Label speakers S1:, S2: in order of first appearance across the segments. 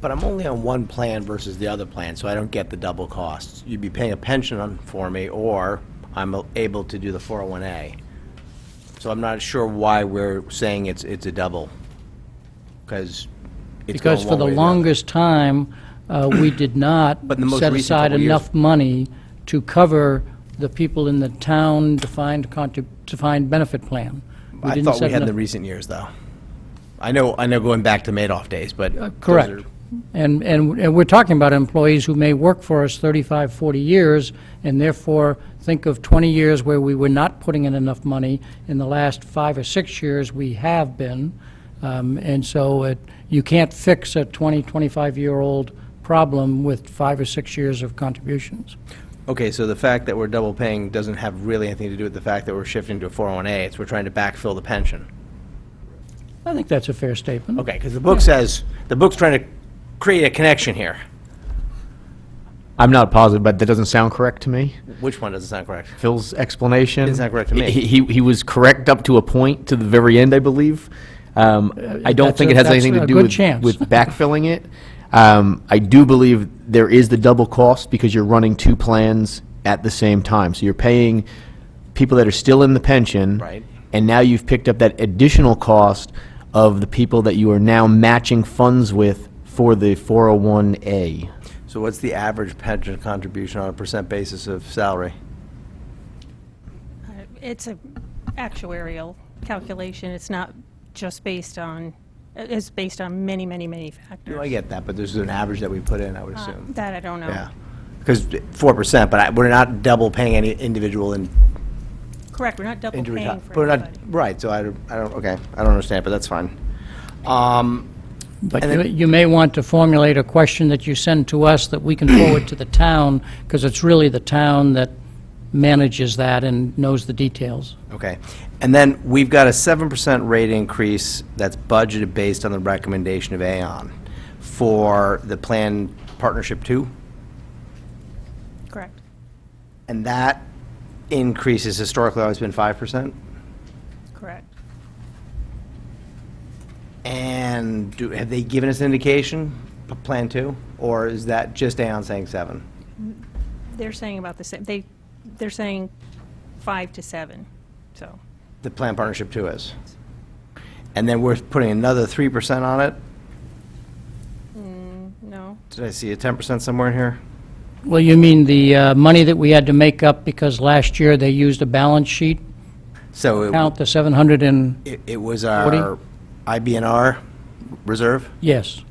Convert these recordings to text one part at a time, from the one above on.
S1: But I'm only on one plan versus the other plan, so I don't get the double costs. You'd be paying a pension on, for me, or I'm able to do the 401A. So I'm not sure why we're saying it's, it's a double, because it's going
S2: Because for
S1: one
S2: the
S1: way or other.
S2: longest time, uh, we did not
S1: But in the most
S2: set
S1: recent
S2: aside
S1: couple years-
S2: enough money to cover the people in the town defined contrib, defined benefit plan. We
S1: I
S2: didn't
S1: thought we
S2: set
S1: had in the
S2: enough-
S1: recent years, though. I know, I know going back to Madoff days, but. those
S2: Uh, Correct.
S1: are-
S2: And, and and we're talking about employees who may work for us 35, 40 years, and therefore think of 20 years where we were not putting in enough money. In the last five or six years, we have been. Um, And so it, you can't fix a 20, 25-year-old problem with five or six years of contributions.
S1: Okay, so the fact that we're double paying doesn't have really anything to do with the fact that we're shifting to a 401A, it's we're trying to backfill the pension.
S2: I think that's a fair statement.
S1: Okay, because the book says, the book's trying to create a connection here.
S3: I'm not positive, but that doesn't sound correct to me.
S1: Which one doesn't sound correct?
S3: Phil's explanation.
S1: It's not correct to me.
S3: He, he- he was correct up to a point, to the very end, I believe. Um, I don't
S2: that's
S3: think
S2: a-
S3: it has
S2: that's
S3: anything
S2: a
S3: to do
S2: good
S3: with,
S2: chance.
S3: with backfilling it. Um, I do believe there is the double cost because you're running two plans at the same time. So you're paying people that are still in the pension.
S1: Right.
S3: And now you've picked up that additional cost of the people that you are now matching funds with for the 401A.
S1: So what's the average pension contribution on a percent basis of salary?
S4: It's a actuarial calculation. It's not just based on, it's based on many, many, many factors.
S1: No, I get that, but there's an average that we put in, I would
S4: Uh,
S1: assume.
S4: That I don't know.
S1: Yeah, because 4%, but I- we're not double paying any individual in
S4: Correct, we're not double
S1: Injury
S4: paying
S1: time,
S4: for
S1: but not,
S4: everybody.
S1: right, so I don't, I don't, okay, I don't understand, but that's fine. Um,
S2: But
S1: And
S2: you-
S1: then-
S2: you may want to formulate a question that you send to us that we can forward to the town, because it's really the town that manages that and knows the details.
S1: okay, and then we've got a seven percent rate increase that's budgeted based on the recommendation of Aon for the plan partnership two,
S4: Correct,
S1: and that increase has historically always been five percent?
S4: correct.
S1: And do, have they given us an indication, p- plan two, or is that just Aon saying seven?
S4: They're saying about the same, they, they're saying five to seven, so,
S1: The plan partnership two is? And then we're putting another three percent on it?
S4: no?
S1: Did I see a ten percent somewhere in here?
S2: Well, you mean the uh, money that we had to make up because last year they used a balance sheet
S1: So it-
S2: count, the 700 and,
S1: it, it was our IBNR reserve?
S2: yes.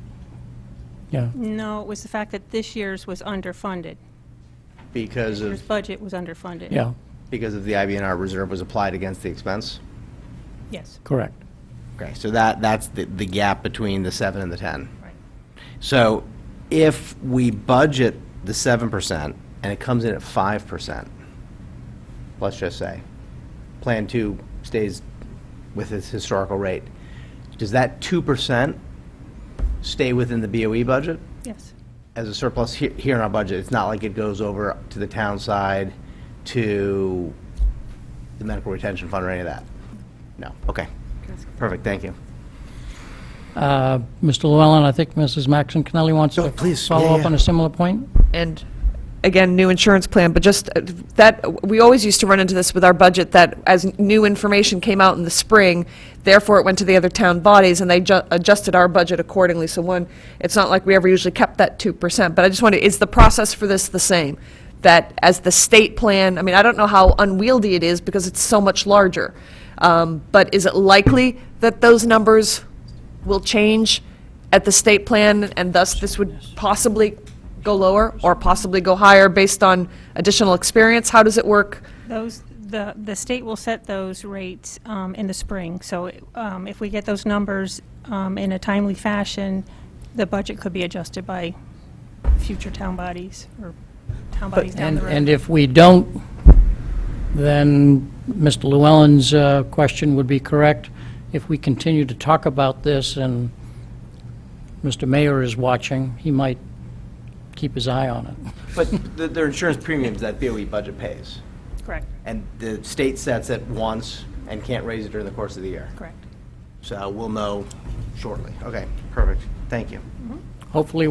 S2: Yeah,
S4: No, it was the fact that this year's was underfunded.
S1: Because
S4: This year's
S1: of,
S4: budget was underfunded.
S2: yeah,
S1: because of the IBNR reserve was applied against the expense?
S4: Yes,
S2: correct.
S1: Okay, so that, that's the, the gap between the seven and the ten.
S4: right.
S1: So if we budget the seven percent and it comes in at five percent, let's just say, Plan Two stays with its historical rate, does that two percent stay within the BOE budget
S4: Yes,
S1: as a surplus he- here in our budget? It's not like it goes over to the town side, to the medical retention fund or any of that? No, okay. Perfect, thank you.
S2: Uh, Mr. Llewellyn, I think Mrs. Maxon Connelly wants
S1: No,
S2: to
S1: please, yeah,
S2: follow
S1: yeah.
S2: up on a similar point?
S5: and again, new insurance plan, but just uh, that, we always used to run into this with our budget, that as new information came out in the spring, therefore it went to the other town bodies, and they ju- adjusted our budget accordingly. So one, it's not like we ever usually kept that 2%, but I just wonder, is the process for this the same? That as the state plan, I mean, I don't know how unwieldy it is, because it's so much larger, Um, but is it likely that those numbers will change at the state plan, and thus this would possibly go lower or possibly go higher based on additional experience? How does it work?
S4: Those, the, the state will set those rates um, in the spring, so um, if we get those numbers um, in a timely fashion, the budget could be adjusted by future town bodies or town bodies down
S2: And,
S4: the road.
S2: and if we don't, then Mr. Llewellyn's uh, question would be correct. If we continue to talk about this and Mr. Mayor is watching, he might keep his eye on it.
S1: But th- their insurance premiums that BOE budget pays,
S4: Correct,
S1: and the state sets it once and can't raise it during the course of the year.
S4: correct.
S1: So we'll know shortly. Okay, perfect. Thank you.
S2: hopefully